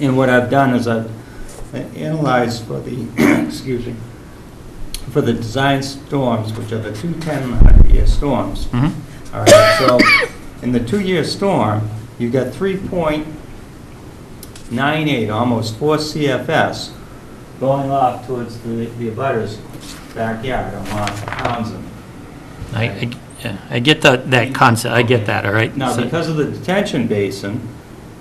And what I've done is I've analyzed for the, excuse me, for the design storms, which are the two 10-year storms. Mhm. All right, so in the two-year storm, you've got 3.98, almost 4 CFS going off towards the the abutters backyard on Townsend. I, I- yeah, I get that, that concept, I get that, all right? Now, So- because of the detention basin,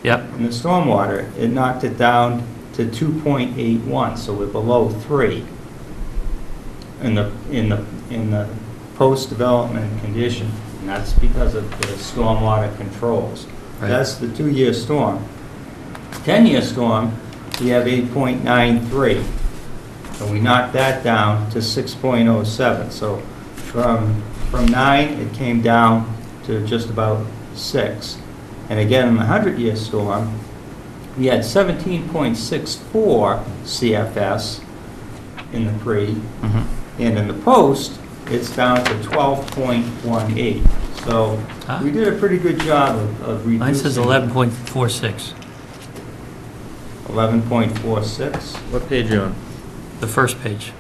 Yep, in the stormwater, it knocked it down to 2.81, so we're below 3 in the, in the, in the post-development condition, and that's because of the stormwater controls. Right. That's the two-year storm. 10-year storm, we have 8.93, and we knocked that down to 6.07. So from, from 9, it came down to just about 6. And again, in the 100-year storm, we had 17.64 CFS in the pre, mhm, and in the post, it's down to 12.18. So we did a pretty good job of- of reducing. mine says 11.46, 11.46. What page are you on? the first page.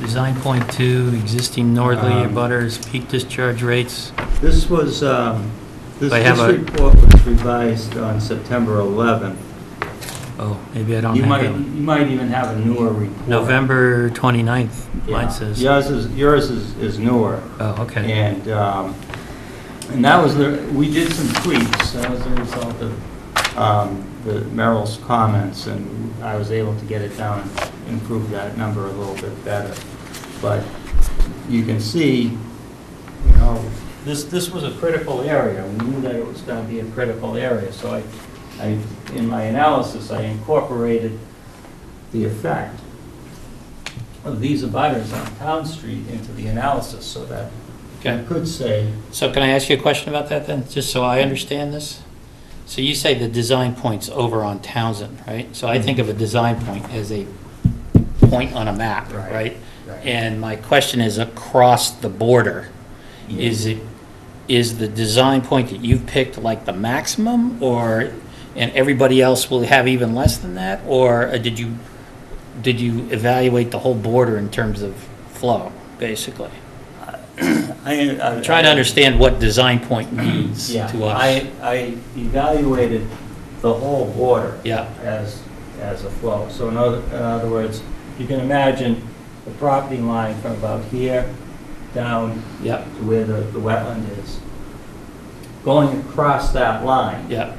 Design point two, existing northerly Um, butters, peak discharge rates, This was, um, this They have this a- report was revised on September 11th. oh, maybe I don't You have might, it. you might even have a newer report. November 29th, Yeah. mine says. Yours is, yours is is newer. Oh, okay. And, um, and that was the, we did some tweaks, that was the result of um, the Merrill's comments, and I was able to get it down and improve that number a little bit better. But you can see, you know, this, this was a critical area, we knew that it was gonna be a critical area, so I, I, in my analysis, I incorporated the effect of these abutters on Town Street into the analysis, so that I Okay, could say, so can I ask you a question about that then, just so I understand this? So you say the design point's over on Townsend, right? So I think of a design point as a point on a map, Right. right? Right. And my question is across the border, Mm-hmm. is it, is the design point that you've picked like the maximum or, and everybody else will have even less than that? Or uh, did you, did you evaluate the whole border in terms of flow, basically? I'm Trying to understand what design point means to Yeah, us. I, I evaluated the whole border. Yeah. As, as a flow. So in other, in other words, you can imagine the property line from about here down Yep, to where the, the wetland is. Going across that line, yep,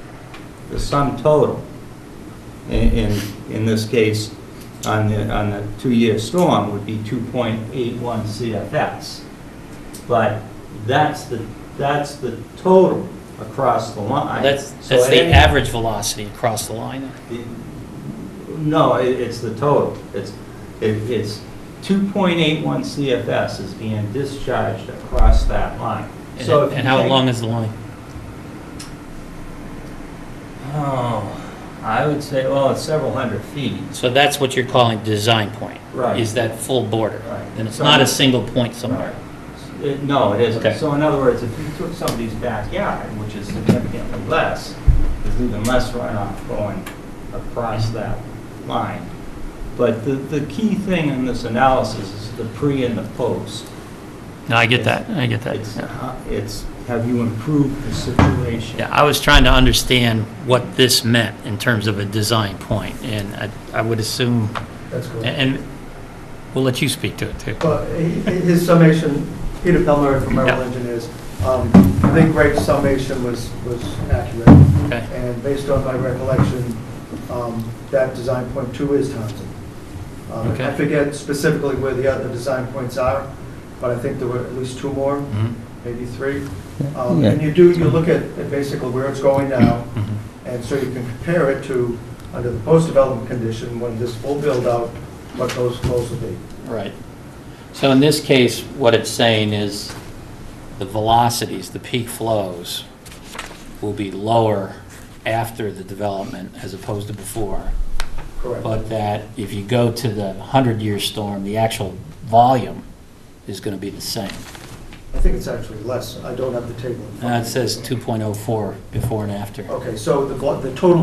the sum total, in, in, in this case, on the, on the two-year storm would be 2.81 CFS. But that's the, that's the total across the line. that's, So that's at the any- average velocity across the line. the- No, it, it's the total. It's, it, it's 2.81 CFS is being discharged across that line. And So if you and how take- long is the line? Oh, I would say, well, it's several hundred feet. So that's what you're calling design point? Right. Is that full border? Right. And it's So- not a single point somewhere? It- No, it Okay. isn't. So in other words, if you took somebody's backyard, which is significantly less, there's even less runoff going across that line. But the, the key thing in this analysis is the pre and the post. No, I get It's- that, I get that. It's, Yeah. uh, it's, have you improved the situation? Yeah, I was trying to understand what this meant in terms of a design point, and I, I would assume, That's and- correct. and we'll let you speak to it, too. Well, he- his summation, Peter Pelmer from Merrill Yeah. Engineers, um, I think Greg's summation was, was accurate. Okay. And based on my recollection, um, that design point two is Townsend. Um, Okay. I forget specifically where the other design points are, but I think there were at least two more, Mhm, maybe three. Um, And you do, you look at at basically where it's going now, mhm. and so you can compare it to, under the post-development condition, when this full build-out, what those flows will be. Right. So in this case, what it's saying is the velocities, the peak flows, will be lower after the development as opposed to before. Correct. But that if you go to the 100-year storm, the actual volume is going to be the same. I think it's actually less. I don't have the table. in front Uh, of It me. says 2.04 before and after. Okay, so the, vo- the total